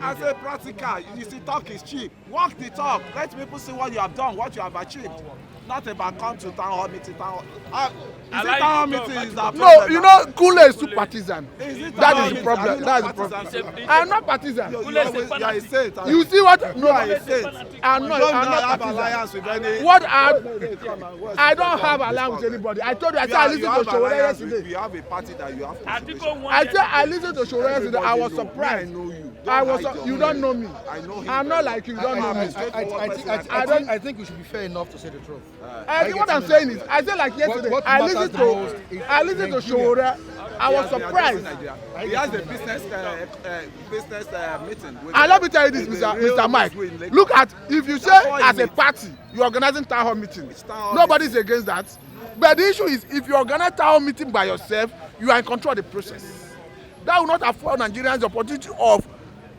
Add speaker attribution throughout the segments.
Speaker 1: I say practical, you see, talk is cheap. Walk the talk. Let people see what you have done, what you have achieved. Not about come to town hall meeting. Town hall. Uh, is
Speaker 2: I
Speaker 1: it
Speaker 2: like
Speaker 1: town
Speaker 2: the
Speaker 1: hall
Speaker 2: talk,
Speaker 1: meeting? Is
Speaker 2: I
Speaker 1: that
Speaker 3: No, you know, Kule is too partisan.
Speaker 1: Is it
Speaker 3: That
Speaker 1: town
Speaker 3: is the
Speaker 1: hall
Speaker 3: problem.
Speaker 1: meeting?
Speaker 3: That is
Speaker 1: Are you not
Speaker 3: the problem.
Speaker 1: partisan?
Speaker 3: I am not
Speaker 1: You,
Speaker 3: partisan.
Speaker 1: you,
Speaker 2: Kule is a
Speaker 1: always, you are a
Speaker 2: fanatic.
Speaker 1: saint.
Speaker 3: You see what?
Speaker 1: you
Speaker 3: No,
Speaker 1: are a
Speaker 3: I
Speaker 1: saint.
Speaker 3: am
Speaker 1: You
Speaker 3: not.
Speaker 1: don't
Speaker 3: I'm not
Speaker 1: have
Speaker 3: partisan.
Speaker 1: alliance with any.
Speaker 3: What I
Speaker 1: No, no, come on, what's
Speaker 3: I
Speaker 1: the
Speaker 3: don't
Speaker 1: problem?
Speaker 3: have alliance with anybody. I told you. I
Speaker 1: You
Speaker 3: said I
Speaker 1: are- you
Speaker 3: listened to
Speaker 1: have
Speaker 3: Showore
Speaker 1: alliance with-
Speaker 3: yesterday.
Speaker 1: You have a party that you have.
Speaker 2: Atiko
Speaker 1: contribution.
Speaker 2: won
Speaker 3: I said I listened to Showore yesterday. I was
Speaker 1: Everybody know me,
Speaker 3: surprised.
Speaker 1: I know you. Don't
Speaker 3: I was.
Speaker 1: hide
Speaker 3: su-
Speaker 1: your
Speaker 3: You
Speaker 1: name.
Speaker 3: don't know me.
Speaker 1: I know him.
Speaker 3: I'm not like you. You don't know
Speaker 1: I'm
Speaker 3: me.
Speaker 1: a
Speaker 4: I, I, I, think, I,
Speaker 1: I
Speaker 4: I,
Speaker 1: don't-
Speaker 4: think, I think we should be fair enough to say the truth.
Speaker 3: I think what I'm saying is, I said like yesterday,
Speaker 4: what
Speaker 3: I
Speaker 4: matters
Speaker 3: listened
Speaker 4: the most
Speaker 3: to,
Speaker 4: is
Speaker 3: I listened to
Speaker 4: Nigeria.
Speaker 3: Showore. I
Speaker 1: He has-
Speaker 3: was
Speaker 1: he has
Speaker 3: surprised.
Speaker 1: been in Nigeria. He has a business uh, uh, business uh, meeting. With
Speaker 3: And let me tell you this,
Speaker 1: with
Speaker 3: Mr.
Speaker 1: the real
Speaker 3: Mr. Mike.
Speaker 1: newsroom in Lagos.
Speaker 3: Look at if you say
Speaker 1: That's why
Speaker 3: as
Speaker 1: you
Speaker 3: a
Speaker 1: meet.
Speaker 3: party you're organizing town hall meeting.
Speaker 1: It's town hall
Speaker 3: Nobody's against that. But the issue is if you organize town hall meeting by yourself, you are in control of the process. That will not afford Nigerians the opportunity of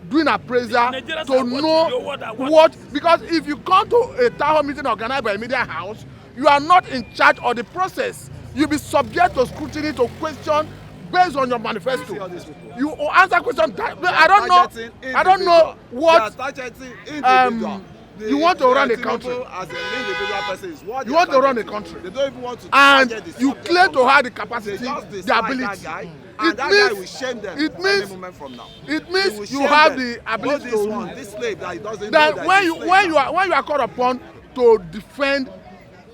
Speaker 3: doing appraisal
Speaker 2: Nigerians
Speaker 3: to
Speaker 2: are watching.
Speaker 3: know
Speaker 2: Your word are watching.
Speaker 3: what because if you come to a town hall meeting organized by a media house, you are not in charge of the process. You'll be subject to scrutiny to question based on your manifesto.
Speaker 1: all these people?
Speaker 3: You answer questions. That, I
Speaker 1: They are
Speaker 3: don't know.
Speaker 1: targeting
Speaker 3: I don't know
Speaker 1: individual.
Speaker 3: what
Speaker 1: They are targeting individual.
Speaker 3: um, you want to
Speaker 1: they
Speaker 3: run
Speaker 1: are
Speaker 3: a country.
Speaker 1: Tinubu As an individual person, is what
Speaker 3: You
Speaker 1: they
Speaker 3: want
Speaker 1: are
Speaker 3: to run a
Speaker 1: targeting.
Speaker 3: country.
Speaker 1: They don't even want to.
Speaker 3: and
Speaker 1: target the
Speaker 3: you
Speaker 1: subject
Speaker 3: claim
Speaker 1: of-
Speaker 3: to have the
Speaker 1: They
Speaker 3: capacity,
Speaker 1: just
Speaker 3: the
Speaker 1: dislike that
Speaker 3: ability. Mm.
Speaker 1: guy, and
Speaker 3: It
Speaker 1: that guy will
Speaker 3: means,
Speaker 1: shame them.
Speaker 3: it
Speaker 1: any
Speaker 3: means,
Speaker 1: moment from now.
Speaker 3: it
Speaker 1: He will
Speaker 3: means you
Speaker 1: shame
Speaker 3: have
Speaker 1: them.
Speaker 3: the
Speaker 1: Oh,
Speaker 3: ability
Speaker 1: this
Speaker 3: to
Speaker 1: one,
Speaker 3: rule.
Speaker 1: this slave that he doesn't know
Speaker 3: that
Speaker 1: that
Speaker 3: when
Speaker 1: he's
Speaker 3: you
Speaker 1: a slave
Speaker 3: when you
Speaker 1: now.
Speaker 3: are when you are called upon to defend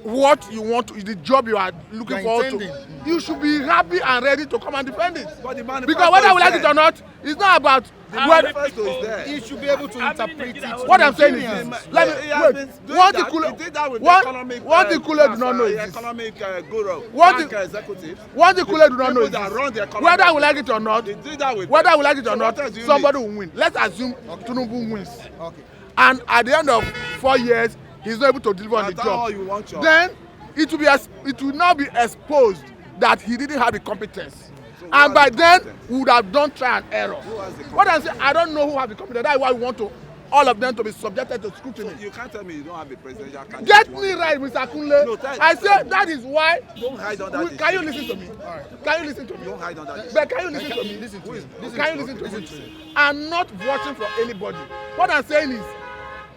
Speaker 3: what you want to, the job you are looking
Speaker 4: You're
Speaker 3: forward to
Speaker 4: intending.
Speaker 3: you should be happy and ready to come and defend it
Speaker 1: But the manifesto
Speaker 3: because whether we
Speaker 1: is
Speaker 3: like it
Speaker 1: there.
Speaker 3: or not it's not about
Speaker 2: And
Speaker 3: whether
Speaker 2: the
Speaker 1: manifesto is there.
Speaker 4: He should be able to
Speaker 2: How many
Speaker 4: interpret
Speaker 2: Nigerians
Speaker 4: it.
Speaker 3: what i'm saying is
Speaker 4: Nigerians.
Speaker 3: this
Speaker 1: Let
Speaker 3: let
Speaker 1: me, he
Speaker 3: me
Speaker 1: has
Speaker 3: wait
Speaker 1: been doing
Speaker 3: one
Speaker 1: that.
Speaker 3: thing
Speaker 1: he did that
Speaker 3: kule
Speaker 1: with the
Speaker 3: one
Speaker 1: economic,
Speaker 3: one thing kule do not know
Speaker 1: uh,
Speaker 3: is this
Speaker 1: economic uh, guru,
Speaker 3: One
Speaker 1: bank
Speaker 3: thing-
Speaker 1: executive.
Speaker 3: one thing
Speaker 1: The
Speaker 3: kule do not
Speaker 1: people
Speaker 3: know is
Speaker 1: that run the
Speaker 3: this
Speaker 1: economy.
Speaker 3: whether we like it or not
Speaker 1: They did that with
Speaker 3: whether
Speaker 1: them.
Speaker 3: we like it or
Speaker 1: So
Speaker 3: not
Speaker 1: what else do you
Speaker 3: somebody
Speaker 1: need?
Speaker 3: will win let's assume tinubu wins
Speaker 4: Okay.
Speaker 3: and at the end of four years he's not able to deliver
Speaker 1: Now
Speaker 3: on the
Speaker 1: that
Speaker 3: job
Speaker 1: all you want your-
Speaker 3: then it will be ex it will now be exposed that he didn't have the competence
Speaker 1: So
Speaker 3: so
Speaker 1: who has
Speaker 3: and by
Speaker 1: the
Speaker 3: then
Speaker 1: competence?
Speaker 3: we would have done trial and error
Speaker 1: Who has the
Speaker 3: what i'm saying i don't know who have the competence that's why we want to all of them to be subjected to scrutiny
Speaker 1: You can't tell me you don't have a presidential candidate.
Speaker 3: get
Speaker 1: one
Speaker 3: me
Speaker 1: day.
Speaker 3: right mr kunle
Speaker 1: No,
Speaker 3: no,
Speaker 1: thank-
Speaker 3: i say that is why
Speaker 1: Don't hide under
Speaker 3: we,
Speaker 1: this
Speaker 3: can you
Speaker 1: shit.
Speaker 3: lis ten to me can you lis ten to me
Speaker 1: Don't hide under this.
Speaker 3: but can you lis ten to me
Speaker 4: Listen to him.
Speaker 3: listen
Speaker 4: Listen
Speaker 3: can you
Speaker 4: to
Speaker 3: lis ten
Speaker 4: him.
Speaker 3: to
Speaker 4: Listen to him.
Speaker 3: me i'm not voting for anybody what i'm saying is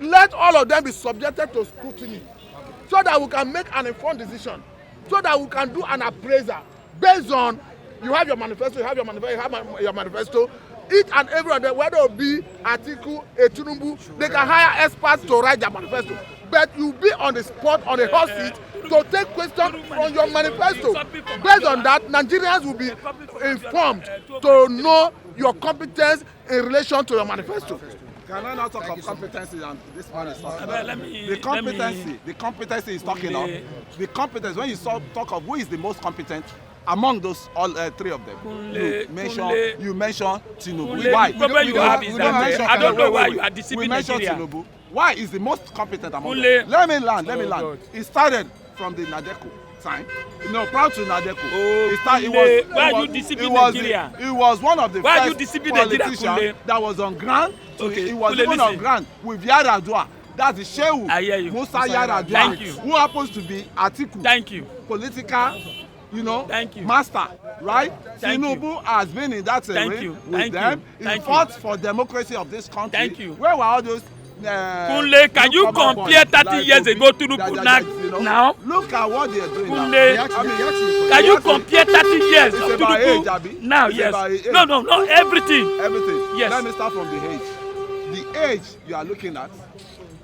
Speaker 3: let all of them be subjected to scrutiny so that we can make an informed decision so that we can do an appraisal based on you have your manifesto you have your manifesto you have ma- your manifesto each and every of them whether it be atiku etunubu they can hire experts to write their manifesto but you be on the spot on the hot seat to take questions from your manifesto based on that nigerians will be informed to know your competence in relation to your manifesto.
Speaker 1: Can I not talk of competency and this man is talking
Speaker 2: Abeg,
Speaker 1: about?
Speaker 2: let me-
Speaker 1: The
Speaker 2: let
Speaker 1: competency,
Speaker 2: me-
Speaker 1: the competency is talking of.
Speaker 2: Kunle.
Speaker 1: The competence, when you saw, talk of who is the most competent among those all uh, three of them,
Speaker 2: Kunle,
Speaker 1: you mention
Speaker 2: Kunle.
Speaker 1: you mention Tinubu.
Speaker 2: Kunle,
Speaker 1: why?
Speaker 2: the problem
Speaker 1: We
Speaker 2: you
Speaker 1: don't-
Speaker 2: have
Speaker 1: we
Speaker 2: is
Speaker 1: don't
Speaker 2: that, uh,
Speaker 1: mention
Speaker 2: I don't
Speaker 1: Tinubu.
Speaker 2: know
Speaker 1: Wait,
Speaker 2: why
Speaker 1: wait,
Speaker 2: you are
Speaker 1: wait. We
Speaker 2: deceiving
Speaker 1: mention
Speaker 2: Nigeria.
Speaker 1: Tinubu. Why is the most competent among
Speaker 2: Kunle.
Speaker 1: them? Let me learn. Let me
Speaker 4: Oh,
Speaker 1: learn.
Speaker 4: God.
Speaker 1: It started from the Nadeco time. No, proud to Nadeco.
Speaker 2: Oh,
Speaker 1: it started. It
Speaker 2: Kunle,
Speaker 1: was,
Speaker 2: why
Speaker 1: it
Speaker 2: you
Speaker 1: was,
Speaker 2: deceiving
Speaker 1: it was the-
Speaker 2: Nigeria?
Speaker 1: It was one of the
Speaker 2: Why you
Speaker 1: first
Speaker 2: deceiving Nigeria, Kunle?
Speaker 1: politicians that was on ground. to-
Speaker 2: Okay,
Speaker 1: It was
Speaker 2: Kunle,
Speaker 1: even on
Speaker 2: listen.
Speaker 1: ground with Yaradua. That's the Shehu
Speaker 2: I hear you.
Speaker 1: Musa Yaradua,
Speaker 2: Thank you.
Speaker 1: who happens to be Atiku
Speaker 2: Thank you.
Speaker 1: political you know
Speaker 2: Thank you.
Speaker 1: master right
Speaker 2: Thank you.
Speaker 1: tinubu has been in that
Speaker 2: Thank
Speaker 1: terrain
Speaker 2: you.
Speaker 1: with
Speaker 2: Thank you.
Speaker 1: them he
Speaker 2: Thank you.
Speaker 1: fought for democracy of this country
Speaker 2: Thank you.
Speaker 1: where were all those. Uh,
Speaker 2: Kunle, can you
Speaker 1: newcomer
Speaker 2: compare
Speaker 1: boys
Speaker 2: 30 years
Speaker 1: Obi,
Speaker 2: ago Tinubu
Speaker 1: that-
Speaker 2: now-
Speaker 1: that- that, you know?
Speaker 2: now?
Speaker 1: look at what they are doing
Speaker 2: Kunle,
Speaker 1: now. I mean,
Speaker 2: Can you
Speaker 1: yes,
Speaker 2: compare 30 years
Speaker 1: It's
Speaker 2: of
Speaker 1: about age, Abi.
Speaker 2: Tinubu now?
Speaker 1: It's
Speaker 2: Yes.
Speaker 1: about age.
Speaker 2: No, no, no. Everything.
Speaker 1: everything.
Speaker 2: Yes.
Speaker 1: Let me start from the age. The age you are looking at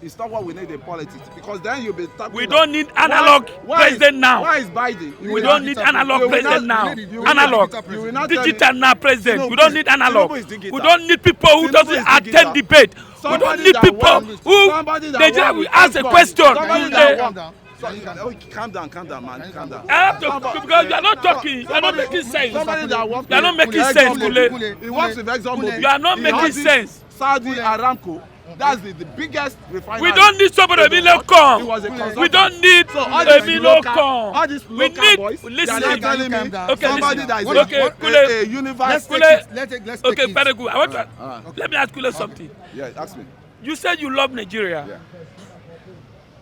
Speaker 1: is not what we need in politics because then you'll be talking.
Speaker 2: We
Speaker 1: about-
Speaker 2: don't need analog president
Speaker 1: is,
Speaker 2: now.
Speaker 1: Why is Biden?
Speaker 2: We don't need analog
Speaker 1: You will
Speaker 2: president now.
Speaker 1: not- you will not-
Speaker 2: Analog.
Speaker 1: You will not tell me-
Speaker 2: Digital now president. We
Speaker 1: Tinubu
Speaker 2: don't
Speaker 1: is-
Speaker 2: need analog.
Speaker 1: Tinubu is digital.
Speaker 2: We don't need people who
Speaker 1: Tinubu
Speaker 2: doesn't
Speaker 1: is digital.
Speaker 2: attend debate. We
Speaker 1: Somebody
Speaker 2: don't need
Speaker 1: that
Speaker 2: people
Speaker 1: won-
Speaker 2: who
Speaker 1: somebody that
Speaker 2: Nigeria
Speaker 1: won
Speaker 2: will
Speaker 1: with
Speaker 2: ask a
Speaker 1: football.
Speaker 2: question.
Speaker 1: Somebody
Speaker 2: Kunle,
Speaker 1: that
Speaker 4: Calm
Speaker 1: won-
Speaker 4: down.
Speaker 1: So, oh, calm down, calm down, man, calm down.
Speaker 2: I have to
Speaker 1: Somebody-
Speaker 2: because you are not talking. You are not
Speaker 1: somebody-
Speaker 2: making sense.
Speaker 1: Somebody that works
Speaker 2: You are not
Speaker 1: with
Speaker 2: making
Speaker 1: Exxon
Speaker 2: sense,
Speaker 1: Mobil.
Speaker 4: Kunle.
Speaker 1: He works with
Speaker 4: Kunle.
Speaker 1: Exxon
Speaker 4: Kunle.
Speaker 1: Mobil.
Speaker 2: You are not
Speaker 1: He
Speaker 2: making
Speaker 1: audits
Speaker 2: sense.
Speaker 1: Saudi Aramco. That's the, the biggest refinery.
Speaker 2: We don't need somebody
Speaker 1: in the
Speaker 2: Emilio
Speaker 1: world. He was a
Speaker 2: Kong.
Speaker 1: consultant.
Speaker 2: We don't need
Speaker 1: So all these
Speaker 2: Emilio
Speaker 1: local- All
Speaker 2: Kong.
Speaker 1: these
Speaker 2: We
Speaker 1: local
Speaker 2: need
Speaker 1: boys.
Speaker 2: listen.
Speaker 1: They are not telling
Speaker 4: Calm
Speaker 1: me
Speaker 4: down.
Speaker 2: Okay,
Speaker 1: somebody
Speaker 2: listen.
Speaker 1: that is
Speaker 2: Okay,
Speaker 1: a,
Speaker 2: Kule.
Speaker 1: a, a universe.
Speaker 4: Let's take
Speaker 2: Kunle.
Speaker 4: it. Let's take, let's take
Speaker 2: Okay,
Speaker 4: it.
Speaker 2: very good. I want to.
Speaker 1: uh,
Speaker 2: Let me ask you something.
Speaker 1: Yeah, ask me.
Speaker 2: You said you love Nigeria.
Speaker 1: Yeah.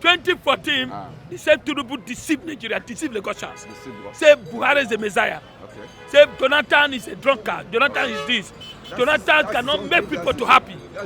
Speaker 2: 2014,
Speaker 1: Ah.
Speaker 2: the same Tinubu deceived Nigeria, deceived Lagosians.
Speaker 1: Deceived Lagos.
Speaker 2: Say Buhari is the Messiah.
Speaker 1: Okay.
Speaker 2: Say Jonathan is a drunkard. Jonathan is this. Jonathan
Speaker 1: that's
Speaker 2: cannot
Speaker 1: so
Speaker 2: make
Speaker 1: good,
Speaker 2: people
Speaker 1: that's
Speaker 2: to
Speaker 1: so-
Speaker 2: happy.